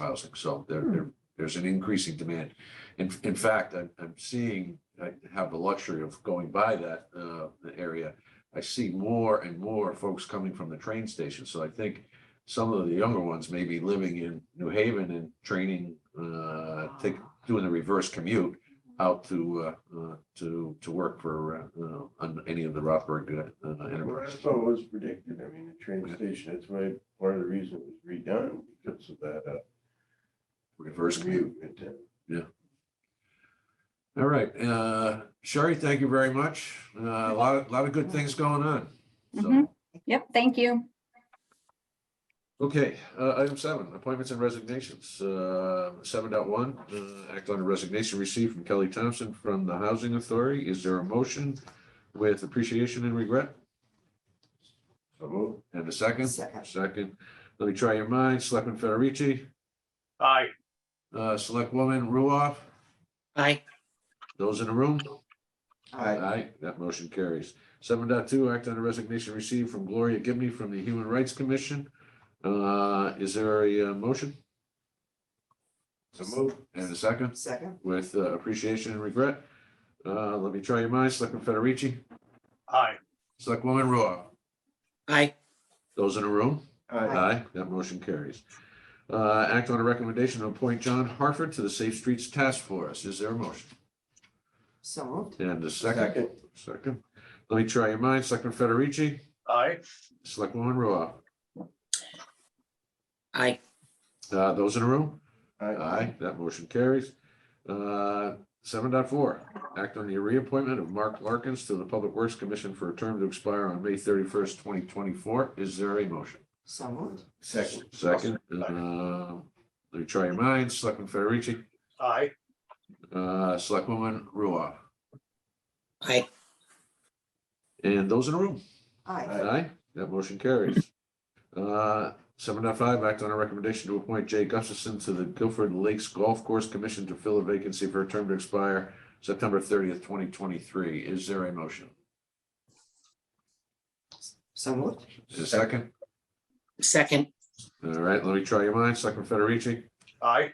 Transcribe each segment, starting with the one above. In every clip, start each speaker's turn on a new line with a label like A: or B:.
A: housing, so there, there, there's an increasing demand. In, in fact, I'm, I'm seeing, I have the luxury of going by that, uh, the area. I see more and more folks coming from the train station, so I think some of the younger ones may be living in New Haven and training, uh, take, doing the reverse commute out to, uh, uh, to, to work for, uh, uh, on any of the Rothberg, uh,
B: Well,
A: enterprises.
B: That's what was predicted. I mean, the
A: Yeah.
B: train station, that's why part of the reason it was redone because of that. uh,
A: reverse commute.
B: movement.
A: All right, uh, Sherry, thank you very much. Uh, a lot, of lot of good things going on.
C: Mhm.
A: So,
C: Yep, thank you.
A: okay, uh, item seven, appointments and resignations. Uh, seven dot one, uh, act on a resignation received from Kelly Thompson from the Housing Authority. Is there a motion with appreciation and regret?
B: So moved.
A: And a second?
D: Second.
A: Second. Let me try your minds. Selectman Federici,
E: Aye,
A: uh, Select Woman Ruoff,
D: Aye.
A: those in the room?
D: Aye.
A: Aye, that motion carries. Seven point two. act on a resignation received from Gloria Gibney from the Human Rights Commission. Uh, is there a uh, motion
B: So moved.
A: and a second
D: Second.
A: with uh, appreciation and regret? Uh, let me try your minds, Selectman Federici,
E: aye,
A: Selectwoman Ruoff,
D: Aye.
A: those in the room?
B: Aye.
A: Aye, that motion carries. Uh, act on a recommendation to appoint John Harford to the Safe Streets Task Force. Is there a motion?
D: So moved.
A: And a second,
B: Second.
A: second. Let me try your minds, Selectman Federici,
E: aye,
A: Selectwoman Ruoff,
D: Aye.
A: uh, those in the room?
B: Aye.
A: Aye, that motion carries. Uh, Seven dot four, act on the reappointment of Mark Larkins to the Public Works Commission for a term to expire on May thirty-first, twenty twenty-four. Is there a motion?
D: So moved.
B: Second.
A: Second, uh, let me try your minds. Selectman Federici,
E: aye,
A: uh, Selectwoman Ruoff,
D: Aye.
A: and those in the room?
D: Aye.
B: Aye.
A: Aye, that motion carries. Uh, Seven dot five, act on a recommendation to appoint Jay Gustafson to the Guilford Lakes Golf Course Commission to fill a vacancy for a term to expire September thirtieth, twenty twenty-three. Is there a motion?
D: So moved.
A: Is there a second?
D: Second.
A: All right, let me try your minds. Selectman Federici,
E: aye,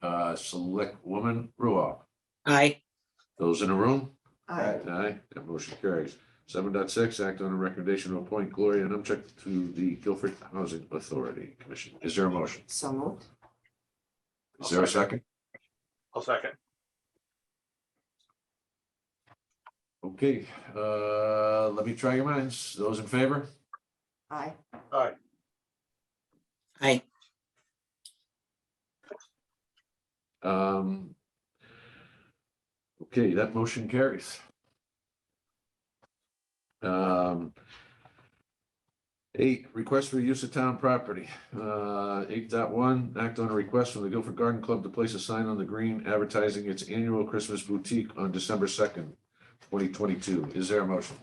A: uh, select woman Ruoff.
D: Aye.
A: Those in the room?
D: Aye.
A: Aye, that motion carries. Seven point six. act on a recommendation to appoint Gloria Numchuck to the Guilford Housing Authority Commission. Is there a motion?
D: So moved.
A: Is there a second?
E: I'll second,
A: Okay, uh, let me try your minds. Those in favor?
D: Aye.
E: aye,
D: Aye.
A: Um. Okay, that motion carries. Um. Eight, request for use of town property. Uh, eight dot one, act on a request from the Guilford Garden Club to place a sign on the green advertising its annual Christmas boutique on December second, twenty twenty-two. Is there a motion?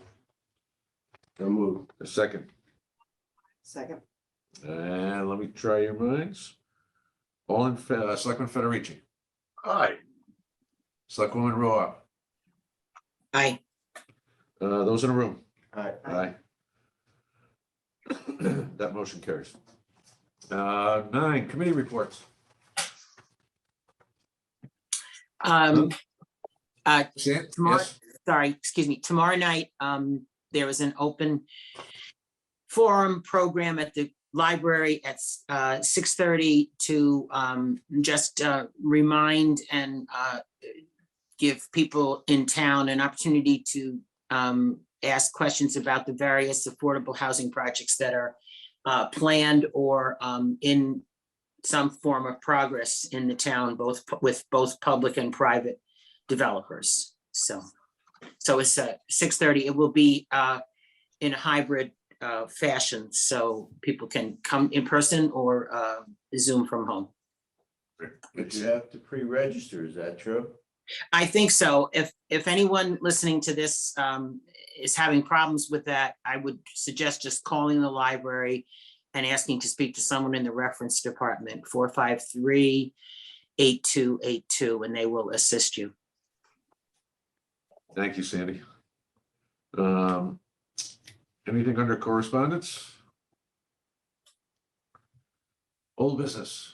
B: So moved.
A: A second?
D: Second.
A: And let me try your minds. All in, fa- uh, Selectman Federici,
E: aye,
A: Selectwoman Ruoff,
D: Aye.
A: uh, those in the room?
B: Aye.
A: Aye. That motion carries. Uh, nine, committee reports.
F: Um, uh,
A: Sam?
F: tomorrow,
A: Yes.
F: sorry, excuse me, tomorrow night, um, there is an open forum program at the library at, uh, six thirty to, um, just, uh, remind and, uh, give people in town an opportunity to, um, ask questions about the various affordable housing projects that are, uh, planned or, um, in some form of progress in the town, both pu- with both public and private developers. So, so it's uh six thirty. It will be uh in a hybrid uh fashion, so people can come in person or uh Zoom from home.
B: But you have to pre-register, is that true?
F: I think so. If, if anyone listening to this um, is having problems with that, I would suggest just calling the library and asking to speak to someone in the reference department, 453-8282, and they will assist you.
A: Thank you, Sandy. Um, anything under correspondence? Old business.